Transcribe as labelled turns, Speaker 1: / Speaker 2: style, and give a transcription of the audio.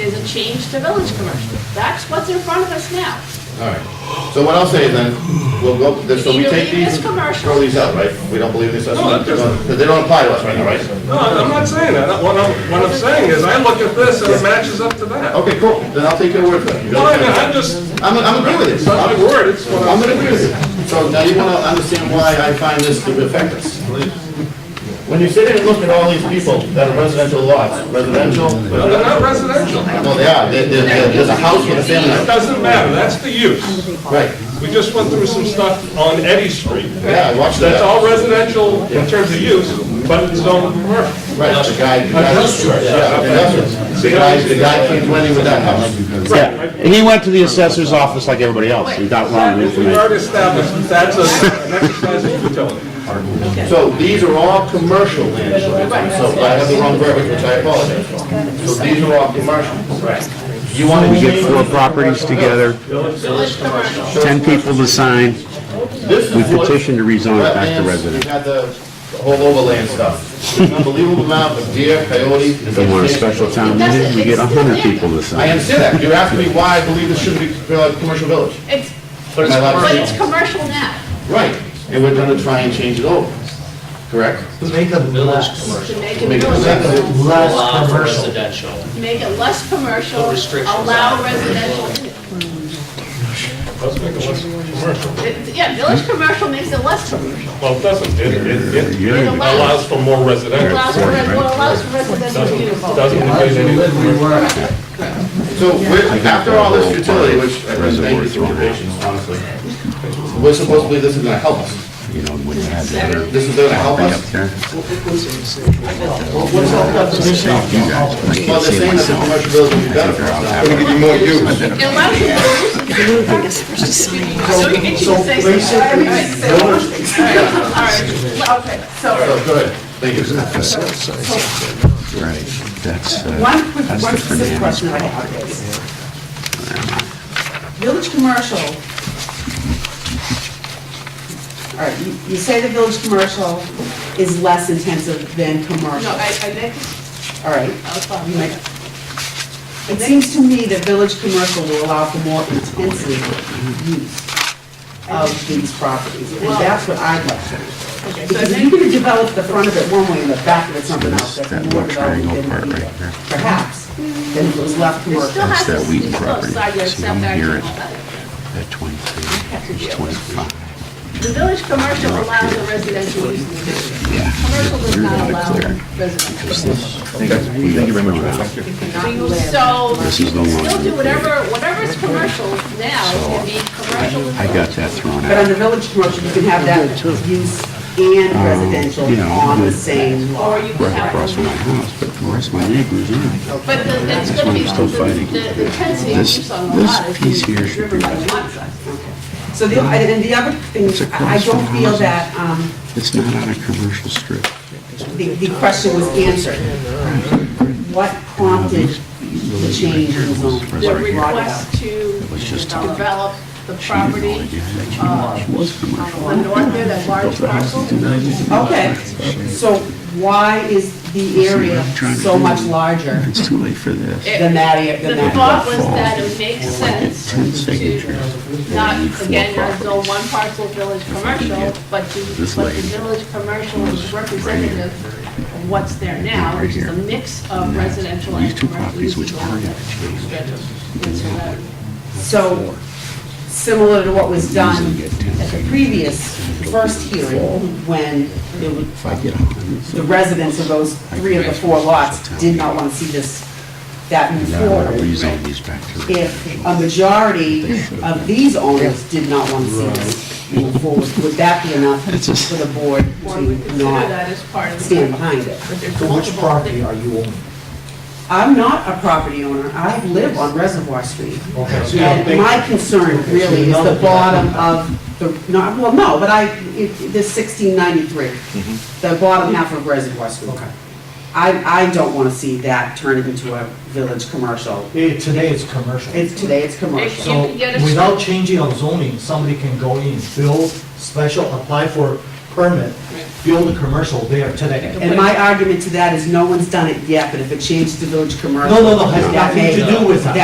Speaker 1: is a change to village commercial. That's what's in front of us now.
Speaker 2: All right. So what I'll say then, we'll go, so we
Speaker 1: Either
Speaker 2: take
Speaker 1: leave
Speaker 2: these,
Speaker 1: this commercial-
Speaker 2: throw these out, right? We don't believe this
Speaker 3: No, that
Speaker 2: assessment,
Speaker 3: doesn't-
Speaker 2: because they don't apply to us right now, right?
Speaker 3: No, I'm not saying that. What I'm, what I'm saying is I look at this and it matches up to that.
Speaker 2: Okay, cool, then I'll take your word for it. You
Speaker 3: Well,
Speaker 2: got
Speaker 3: I
Speaker 2: it.
Speaker 3: mean, I'm just,
Speaker 2: I'm, I'm agree with
Speaker 3: it's
Speaker 2: this.
Speaker 3: not my
Speaker 2: I'm
Speaker 3: word, it's what I'm.
Speaker 2: gonna agree with you. So now you wanna understand why I find this to affect us. When you sit here and look at all these people that are residential lots, residential,
Speaker 3: But They're not residential. It
Speaker 2: no, they are, There- there- there- there's a house with a family, on it.
Speaker 3: doesn't matter, that's the use.
Speaker 2: right?
Speaker 3: We just went through some stuff on Eddy Street.
Speaker 2: Yeah, I watched that.
Speaker 3: That's all residential in terms of use, but it's zoned commercial.
Speaker 2: Right, the guy, the guy. Yeah, industrial. The guy, the guy came running with that house.
Speaker 4: Yeah, and he went to the assessor's office like everybody else, and got wrong
Speaker 3: We
Speaker 4: information.
Speaker 3: already established that that's a- an exercise of utility.
Speaker 2: So these are all commercial land shortages, so if I have the wrong verbiage, which I apologize for. So these are all commercial. Right. You want to
Speaker 4: We get
Speaker 2: change
Speaker 4: four properties together,
Speaker 1: Village commercial.
Speaker 4: 10 people to sign,
Speaker 2: this
Speaker 4: we
Speaker 2: is what
Speaker 4: petition to rezone it back
Speaker 2: wetlands,
Speaker 4: to
Speaker 2: you
Speaker 4: residential.
Speaker 2: got the the whole overland stuff. An Unbelievable amount of deer, coyote.
Speaker 4: If we want a special town meeting, we get 100 people to
Speaker 2: I
Speaker 4: sign.
Speaker 2: understand that. You're asking me why I believe this should be a commercial village.
Speaker 1: It's,
Speaker 2: But it's
Speaker 1: but it's commercial now.
Speaker 2: Right, and we're gonna try and change it over, correct?
Speaker 5: Make a village commercial.
Speaker 1: To make it
Speaker 2: Make it
Speaker 1: village,
Speaker 5: Less
Speaker 6: Allow for
Speaker 5: commercial.
Speaker 6: residential.
Speaker 1: make it less commercial,
Speaker 6: Put restrictions
Speaker 1: allow
Speaker 6: on it.
Speaker 1: residential. in it.
Speaker 3: Let's make it less commercial.
Speaker 1: It- Yeah, village commercial makes it less commercial.
Speaker 3: Well, it doesn't, it, it, it
Speaker 1: It
Speaker 4: You're-
Speaker 3: allows
Speaker 1: allows,
Speaker 3: for more residential.
Speaker 1: allows for, res- well, allows for residential
Speaker 3: Doesn't,
Speaker 1: use.
Speaker 3: doesn't negate any of the commercial.
Speaker 2: So we're, after all this futility, which I really thank you for your patience, honestly, we're supposed to believe this is gonna help us.
Speaker 4: You know, when you have that
Speaker 2: This is gonna help
Speaker 4: up
Speaker 2: us.
Speaker 4: there,
Speaker 2: Well, they're saying that the commercial building will be better for us. It's gonna give you more use.
Speaker 1: It allows you to use. So you can
Speaker 5: So
Speaker 1: say something.
Speaker 5: basically, village
Speaker 1: All right, okay, so
Speaker 2: So, go ahead, thank you.
Speaker 4: right, that's, uh,
Speaker 7: One quick,
Speaker 4: That's
Speaker 7: one
Speaker 4: the Fernandez
Speaker 7: specific question I have is, village commercial, all right, you- you say the village commercial is less intensive than
Speaker 1: No,
Speaker 7: commercial,
Speaker 1: I, I make,
Speaker 7: all right?
Speaker 1: I'll follow.
Speaker 7: You might- It seems to me that village commercial will allow for more intensive use of these properties, and that's what I'd like
Speaker 1: okay, so
Speaker 7: to.
Speaker 1: I
Speaker 7: Because if
Speaker 1: make-
Speaker 7: you're gonna develop the front of it one way and the back of it something else, that's
Speaker 4: That
Speaker 7: more
Speaker 4: little triangle
Speaker 7: development
Speaker 4: part
Speaker 7: than
Speaker 4: right there.
Speaker 7: perhaps, than if it was left
Speaker 1: It still
Speaker 7: commercial.
Speaker 1: has
Speaker 4: that
Speaker 1: to be
Speaker 4: Wheaton
Speaker 1: close
Speaker 4: property,
Speaker 1: side yard
Speaker 4: so you don't
Speaker 1: setback
Speaker 4: hear
Speaker 1: and
Speaker 4: it.
Speaker 1: all that.
Speaker 4: that 23 is 25.
Speaker 1: The village commercial allows a residential use in the district. Commercial does not allow residential.
Speaker 4: We got thrown
Speaker 1: So
Speaker 4: out.
Speaker 1: you, so
Speaker 4: This
Speaker 1: you
Speaker 4: is no
Speaker 1: can still
Speaker 4: longer
Speaker 1: do whatever, whatever is commercial now can be commercial.
Speaker 4: I got that thrown
Speaker 7: But
Speaker 4: out.
Speaker 7: under village commercial, you can have that use and residential
Speaker 4: Um, you know,
Speaker 7: on the
Speaker 4: the-
Speaker 7: same lot.
Speaker 1: Or you can
Speaker 4: Right across from my
Speaker 1: have,
Speaker 4: house, but the rest of my neighbors, yeah.
Speaker 1: but the- it's gonna be,
Speaker 4: still
Speaker 1: the-
Speaker 4: fighting.
Speaker 1: the the intensity of
Speaker 4: This-
Speaker 1: use on the
Speaker 4: this
Speaker 1: lot is
Speaker 4: piece
Speaker 1: gonna be
Speaker 4: here should
Speaker 1: driven
Speaker 4: be
Speaker 1: by the lot size.
Speaker 7: So the, and the other thing, I I don't feel that, um,
Speaker 4: It's not on a commercial strip.
Speaker 7: the, the question was answered. What prompted the change in the
Speaker 1: The
Speaker 7: zone? What brought it
Speaker 1: request
Speaker 7: up?
Speaker 1: to
Speaker 4: just to get-
Speaker 1: develop the
Speaker 4: No
Speaker 1: property
Speaker 4: idea that you
Speaker 1: uh,
Speaker 4: know it was
Speaker 1: on the
Speaker 4: commercial.
Speaker 1: north there, that large parcel.
Speaker 7: Okay, so why is the area so much larger
Speaker 4: It's too late for this.
Speaker 7: than that, area-
Speaker 1: The
Speaker 7: than that?
Speaker 1: thought was that it makes sense
Speaker 4: Ten
Speaker 1: to
Speaker 4: signatures.
Speaker 1: not,
Speaker 4: You need four
Speaker 1: again, not
Speaker 4: properties.
Speaker 1: zone one parcel village commercial, but to,
Speaker 4: This
Speaker 1: but the
Speaker 4: lady.
Speaker 1: village commercial is representative of what's there now,
Speaker 4: Right
Speaker 1: which is a
Speaker 4: here.
Speaker 1: mix of residential and
Speaker 4: These two
Speaker 1: commercial
Speaker 4: properties,
Speaker 1: uses.
Speaker 4: which are
Speaker 1: on
Speaker 4: in
Speaker 1: it.
Speaker 4: the
Speaker 1: And so that-
Speaker 7: So, similar to what was done at the previous, first hearing, when it was
Speaker 4: if I get a hundred,
Speaker 7: the residents of those three of the four lots did not want to see this, that move
Speaker 4: I want to
Speaker 7: forward.
Speaker 4: rezone these back to
Speaker 7: If
Speaker 4: residential.
Speaker 7: a majority of these owners did not want to see this move forward, would that be enough for the board
Speaker 1: Or we
Speaker 7: to
Speaker 1: consider that
Speaker 7: not
Speaker 1: as part of
Speaker 7: stand
Speaker 1: the.
Speaker 7: behind it?
Speaker 5: So which property are you owning?
Speaker 7: I'm not a property owner, I live on Reservoir Street.
Speaker 5: Okay, so you don't
Speaker 7: And
Speaker 5: think-
Speaker 7: my concern really is the bottom of the, not, well, no, but I, it- this 1693, the bottom half of Reservoir Street.
Speaker 5: Mm-hmm. Okay.
Speaker 7: I, I don't want to see that turn into a village commercial.
Speaker 5: Eh, Today it's commercial.
Speaker 7: It's, today it's commercial.
Speaker 5: So without changing on zoning, somebody can go in, build special, apply for permit, build a commercial there today.
Speaker 7: And my argument to that is no one's done it yet, but if it changed to village commercial.
Speaker 5: No, no, no, has
Speaker 7: that
Speaker 5: nothing to
Speaker 7: may-
Speaker 5: do with that.